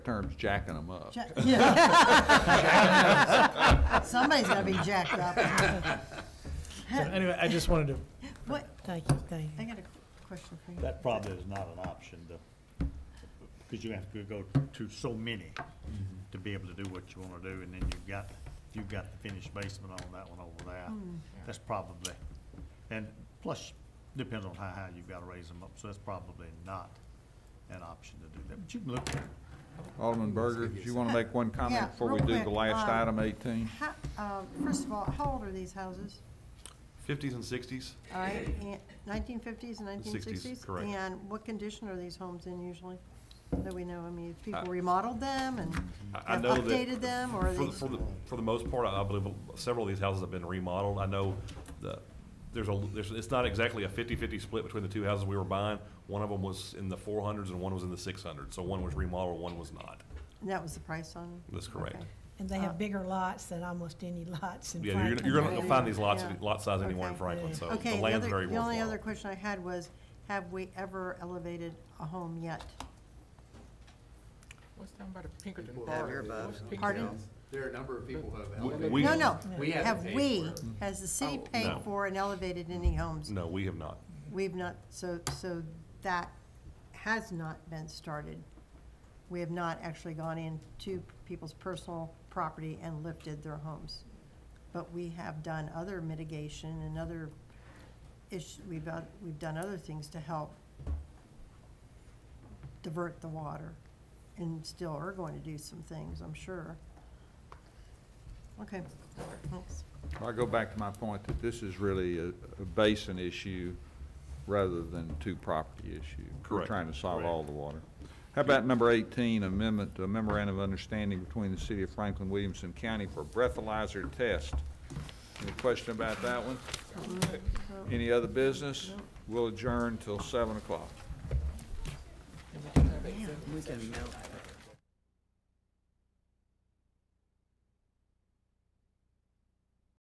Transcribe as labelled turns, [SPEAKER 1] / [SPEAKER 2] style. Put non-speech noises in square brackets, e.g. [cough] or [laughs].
[SPEAKER 1] term's jacking them up.
[SPEAKER 2] Ja- [laughs] yeah. Somebody's gotta be jacked up.
[SPEAKER 3] So anyway, I just wanted to,
[SPEAKER 2] What,
[SPEAKER 4] Thank you, thank
[SPEAKER 2] I
[SPEAKER 4] you.
[SPEAKER 2] got a qu- question for you.
[SPEAKER 5] That probably is not an option, though, because you have to go to so many to be able to do what you want to do, and then you've got, you've got the finished basement on that one over
[SPEAKER 2] Oh,
[SPEAKER 5] there.
[SPEAKER 2] Um,
[SPEAKER 5] That's probably, and plus, depends on how high you've got to raise them up, so that's probably not an option to do that, but you can look at it.
[SPEAKER 1] [laughs] Alderman Berger, do you want to make one
[SPEAKER 2] Yeah,
[SPEAKER 1] comment before we
[SPEAKER 2] real
[SPEAKER 1] do
[SPEAKER 2] quick,
[SPEAKER 1] the last
[SPEAKER 2] um,
[SPEAKER 1] item, 18?
[SPEAKER 2] How, uh, first of all, how old are these houses?
[SPEAKER 6] Fifties and sixties,
[SPEAKER 2] All right, nineteen fifties and nineteen
[SPEAKER 6] 60s,
[SPEAKER 2] sixties?
[SPEAKER 6] correct.
[SPEAKER 2] And what condition are these homes in usually, that we know? I mean, if people
[SPEAKER 6] I-
[SPEAKER 2] remodeled them and
[SPEAKER 6] Uh, I, I
[SPEAKER 2] have
[SPEAKER 6] know that.
[SPEAKER 2] updated them, or are
[SPEAKER 6] For the,
[SPEAKER 2] these?
[SPEAKER 6] for the, for the most part, I I believe several of these houses have been remodeled. I know the, there's a, there's, it's not exactly a 50-50 split between the two houses we were buying. One of them was in the four hundreds and one was in the six hundreds, so one was remodeled, one was not.
[SPEAKER 2] And that was the price on them?
[SPEAKER 6] That's correct.
[SPEAKER 2] Okay.
[SPEAKER 4] And they have bigger lots than almost any lots in
[SPEAKER 6] Yeah, you're,
[SPEAKER 4] Franklin.
[SPEAKER 6] gonna- you're gonna
[SPEAKER 2] Yeah,
[SPEAKER 6] find these lots,
[SPEAKER 2] yeah.
[SPEAKER 6] lot size anywhere in
[SPEAKER 2] Okay.
[SPEAKER 6] Franklin, so
[SPEAKER 2] Okay,
[SPEAKER 6] the
[SPEAKER 2] the
[SPEAKER 6] land's
[SPEAKER 2] other,
[SPEAKER 6] very
[SPEAKER 2] the only other
[SPEAKER 6] worthwhile.
[SPEAKER 2] question I had was, have we ever elevated a home yet?
[SPEAKER 7] What's down by the Pinkerton
[SPEAKER 8] People
[SPEAKER 7] Bar?
[SPEAKER 8] have-
[SPEAKER 7] What's Pinkerton?
[SPEAKER 2] Pardon?
[SPEAKER 8] There are a number of people who have
[SPEAKER 6] W-
[SPEAKER 8] elevated.
[SPEAKER 6] we-
[SPEAKER 2] No, no,
[SPEAKER 8] We haven't
[SPEAKER 2] have
[SPEAKER 8] paid
[SPEAKER 2] we,
[SPEAKER 8] for it.
[SPEAKER 2] has the city
[SPEAKER 6] Oh,
[SPEAKER 2] paid
[SPEAKER 6] no.
[SPEAKER 2] for and elevated any homes?
[SPEAKER 6] No, we have not.
[SPEAKER 2] We've not, so, so that has not been started. We have not actually gone into people's personal property and lifted their homes. But we have done other mitigation and other ish, we've, done- we've done other things to help divert the water, and still are going to do some things, I'm sure. Okay, thanks.
[SPEAKER 1] I go back to my point that this is really a a basin issue rather than two property issue. We're
[SPEAKER 6] Correct.
[SPEAKER 1] trying to solve
[SPEAKER 6] Correct.
[SPEAKER 1] all the water. How about number 18, amendment, to memorandum of understanding between the city of Franklin Williamson County for breathalyzer test? Any question about that one? Any other business? We'll adjourn till 7 o'clock.
[SPEAKER 8] We can melt that.